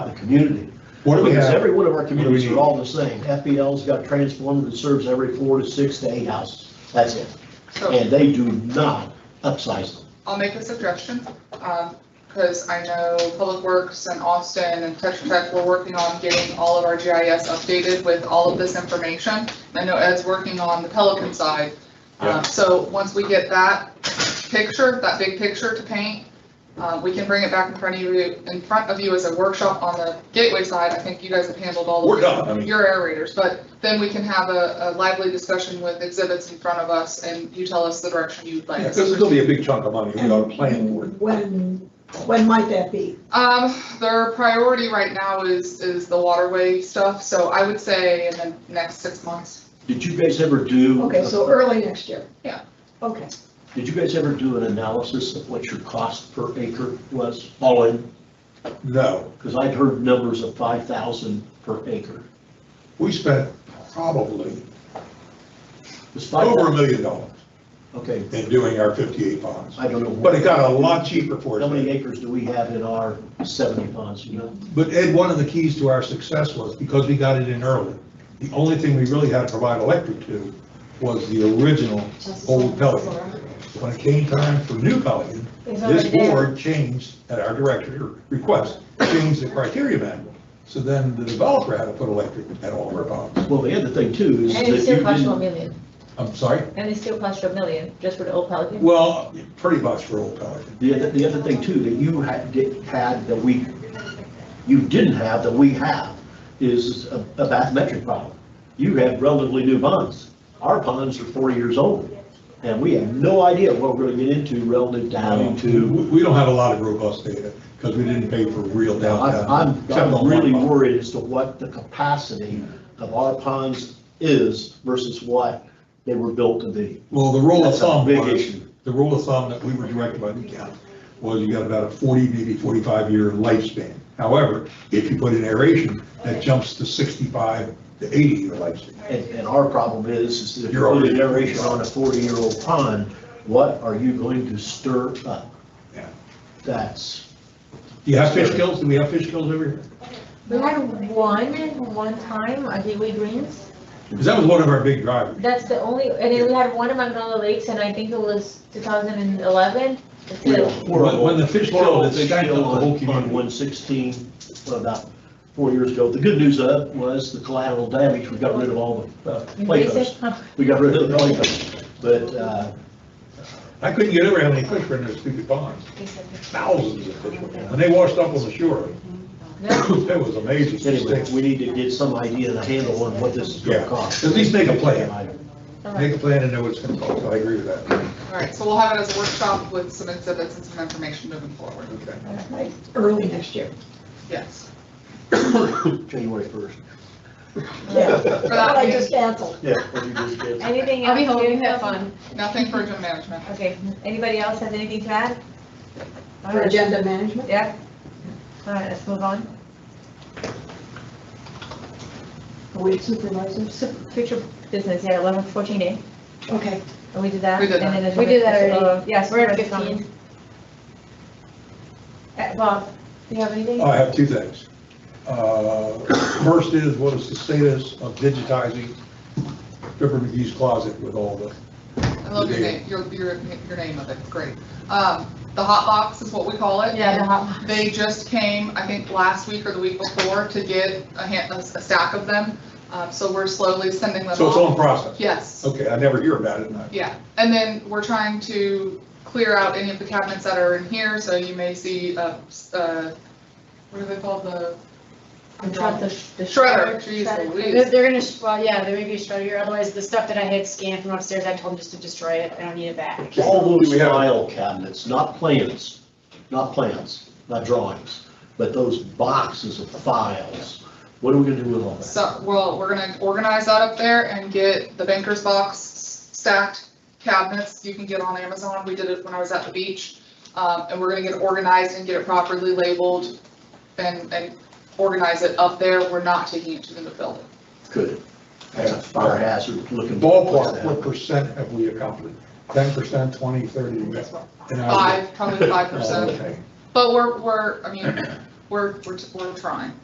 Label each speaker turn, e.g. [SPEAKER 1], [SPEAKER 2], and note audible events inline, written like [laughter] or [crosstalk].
[SPEAKER 1] a community.
[SPEAKER 2] What do we
[SPEAKER 1] Because
[SPEAKER 2] have,
[SPEAKER 1] every one of our communities
[SPEAKER 2] need?
[SPEAKER 1] are all the same. FPL's got transformed that serves every four to six to eight houses. That's it.
[SPEAKER 3] So
[SPEAKER 1] And they do not upsize them.
[SPEAKER 3] I'll make a suggestion, because I know Public Works and Austin and Tetra Tech were working on getting all of our GIS updated with all of this information. I know Ed's working on the Pelican side. Uh, So once we get that picture, that big picture to paint, uh, we can bring it back in front of you, in front of you as a workshop on the Gateway side. I think you guys have handled all of
[SPEAKER 2] we're done, I mean,
[SPEAKER 3] your aerators, but then we can have a a lively discussion with exhibits in front of us, and you tell us the direction you'd like
[SPEAKER 2] this
[SPEAKER 3] us to
[SPEAKER 2] is gonna be a big chunk of money, we gotta plan for it.
[SPEAKER 4] When, when might that be?
[SPEAKER 3] Um, their priority right now is, is the waterway stuff, so I would say in the next six months.
[SPEAKER 1] Did you guys ever do? uh,
[SPEAKER 4] Okay, so early next year?
[SPEAKER 3] Yeah.
[SPEAKER 4] Okay.
[SPEAKER 1] Did you guys ever do an analysis of what your cost per acre was all in?
[SPEAKER 2] No,
[SPEAKER 1] Because I'd heard numbers of five thousand per acre.
[SPEAKER 2] we spent probably
[SPEAKER 1] Was five
[SPEAKER 2] over a
[SPEAKER 1] thousand?
[SPEAKER 2] million dollars
[SPEAKER 1] Okay,
[SPEAKER 2] in doing our fifty-eight ponds.
[SPEAKER 1] I don't know. what-
[SPEAKER 2] But it got a lot cheaper for
[SPEAKER 1] How many
[SPEAKER 2] us.
[SPEAKER 1] acres do we have in our seventy ponds, you know?
[SPEAKER 2] But Ed, one of the keys to our success was because we got it in early. The only thing we really had to provide electric to was the original old Pelican. When it came time for new Pelican, this board changed at our director request, changed the criteria manual. So then the developer had to put electric at all of our ponds.
[SPEAKER 1] Well, the other thing too is that
[SPEAKER 5] And
[SPEAKER 1] you
[SPEAKER 5] it still costs you a
[SPEAKER 1] didn't,
[SPEAKER 5] million,
[SPEAKER 2] I'm sorry?
[SPEAKER 5] and it still costs you a million, just for the old Pelican?
[SPEAKER 2] Well, pretty much for old Pelican.
[SPEAKER 1] the other, the other thing too, that you had, did- had that we, you didn't have that we have is a a bathymetric problem. You have relatively new ponds. Our ponds are forty years old and we have no idea what we're gonna get into relative to having
[SPEAKER 2] We-
[SPEAKER 1] to.
[SPEAKER 2] We don't have a lot of robust data because we didn't pay for real
[SPEAKER 1] I-
[SPEAKER 2] downtown.
[SPEAKER 1] I'm,
[SPEAKER 2] except on
[SPEAKER 1] I'm
[SPEAKER 2] one
[SPEAKER 1] really
[SPEAKER 2] pond.
[SPEAKER 1] worried as to what the capacity of our ponds is versus what they were built to be.
[SPEAKER 2] Well, the rule of
[SPEAKER 1] That's a
[SPEAKER 2] thumb
[SPEAKER 1] big
[SPEAKER 2] was,
[SPEAKER 1] issue.
[SPEAKER 2] the rule of thumb that we were directed by the county was you got about a 40, maybe 45-year lifespan. However, if you put in aeration, that jumps to 65 to 80-year lifespan.
[SPEAKER 1] And, and our problem is, is that if
[SPEAKER 2] You're
[SPEAKER 1] you're putting
[SPEAKER 2] already-
[SPEAKER 1] aeration on a forty-year-old pond, what are you going to stir up?
[SPEAKER 2] Yeah.
[SPEAKER 1] That's,
[SPEAKER 2] Do you have fish kills? Do we have fish kills over here?
[SPEAKER 5] We had one, one time at Gateway Greens,
[SPEAKER 2] Because that was one of our big drivers.
[SPEAKER 5] that's the only, and then we had one in Magnolia Lakes, and I think it was 2011. That's
[SPEAKER 1] we
[SPEAKER 5] it.
[SPEAKER 1] had a horrible.
[SPEAKER 2] When the fish killed,
[SPEAKER 1] horrible
[SPEAKER 2] it
[SPEAKER 1] fish
[SPEAKER 2] stacked
[SPEAKER 1] kill
[SPEAKER 2] up the whole
[SPEAKER 1] on- On
[SPEAKER 2] community.
[SPEAKER 1] one sixteen, about four years ago. The good news of it was the collateral damage, we got rid of all the uh,
[SPEAKER 5] And they
[SPEAKER 1] playhouse.
[SPEAKER 5] said, huh,
[SPEAKER 1] We got rid of the playhouse, but, uh,
[SPEAKER 2] I couldn't get over how many fish were in those stupid ponds.
[SPEAKER 5] they said,
[SPEAKER 2] Thousands of fish. were in there. When they washed up on the shore,
[SPEAKER 5] no.
[SPEAKER 2] [coughs] it was amazing.
[SPEAKER 1] anyway, we need to get some idea and a handle on what this is
[SPEAKER 2] Yeah.
[SPEAKER 1] gonna cost.
[SPEAKER 2] At least make a plan.
[SPEAKER 5] All
[SPEAKER 2] Make
[SPEAKER 5] right.
[SPEAKER 2] a plan and know what it's going to cost. I agree with that.
[SPEAKER 3] All right, so we'll have it as a workshop with some exhibits and some information moving forward,
[SPEAKER 2] Okay.
[SPEAKER 4] Like, early next year.
[SPEAKER 3] yes.
[SPEAKER 1] January
[SPEAKER 2] [laughs]
[SPEAKER 1] first.
[SPEAKER 4] Yeah.
[SPEAKER 3] For
[SPEAKER 4] But
[SPEAKER 3] that
[SPEAKER 4] I
[SPEAKER 3] meeting,
[SPEAKER 4] just canceled.
[SPEAKER 1] Yeah. what you just did.
[SPEAKER 5] Anything
[SPEAKER 6] I'll
[SPEAKER 5] else?
[SPEAKER 6] be home,
[SPEAKER 5] you
[SPEAKER 6] you have fun.
[SPEAKER 3] nothing for gym management.
[SPEAKER 5] Okay, anybody else has anything to add? All
[SPEAKER 4] For
[SPEAKER 5] right.
[SPEAKER 4] agenda management?
[SPEAKER 5] Yeah? All right, let's move on.
[SPEAKER 4] Are we supervisors?
[SPEAKER 5] So, Future business, yeah, 11, 14 A,
[SPEAKER 4] Okay.
[SPEAKER 5] and we did that?
[SPEAKER 3] We did
[SPEAKER 5] and
[SPEAKER 3] that.
[SPEAKER 5] then
[SPEAKER 6] We did that
[SPEAKER 5] there's, uh,
[SPEAKER 6] already.
[SPEAKER 5] Yes.
[SPEAKER 6] We're at
[SPEAKER 5] there's some-
[SPEAKER 6] 15.
[SPEAKER 5] Uh, Bob, do you have anything?
[SPEAKER 2] Oh, I have two things. Uh, First is, what is the status of digitizing Pepper McGee's closet with all the,
[SPEAKER 3] I love your name, your, your, your name of it, it's great. Um, the hot box is what we call it.
[SPEAKER 5] Yeah, the
[SPEAKER 3] and
[SPEAKER 5] hot.
[SPEAKER 3] They just came, I think, last week or the week before to get a hand, a stack of them, uh, so we're slowly sending them
[SPEAKER 2] so it's
[SPEAKER 3] off.
[SPEAKER 2] on process?
[SPEAKER 3] Yes.
[SPEAKER 2] Okay, I never hear about it, and I-
[SPEAKER 3] Yeah, and then we're trying to clear out any of the cabinets that are in here, so you may see, uh, s- uh, what are they called, the?
[SPEAKER 5] I'm trying to- the
[SPEAKER 3] Shredder,
[SPEAKER 5] shredder.
[SPEAKER 3] jeez
[SPEAKER 6] They're,
[SPEAKER 3] Louise.
[SPEAKER 6] they're gonna, sh- well, yeah, there may be a shredder here, otherwise the stuff that I had scanned from upstairs, I told them just to destroy it, I don't need it back.
[SPEAKER 1] All
[SPEAKER 2] Do
[SPEAKER 1] those
[SPEAKER 2] we have-
[SPEAKER 1] file cabinets, not plans, not plans, not drawings, but those boxes of files. What are we gonna do with all that?
[SPEAKER 3] So, well, we're gonna organize that up there and get the banker's box s- stacked cabinets you can get on Amazon, we did it when I was at the beach. Um, and we're gonna get it organized and get it properly labeled and, and organize it up there, we're not taking it to the building.
[SPEAKER 1] Good. That's a fire hazard looking.
[SPEAKER 2] ballpark, what percent have we accomplished? Ten percent, twenty, thirty? Oh,
[SPEAKER 3] Five, probably five
[SPEAKER 2] [laughs]
[SPEAKER 3] percent.
[SPEAKER 2] Okay.
[SPEAKER 3] But we're, we're, I mean, we're, we're, we're trying.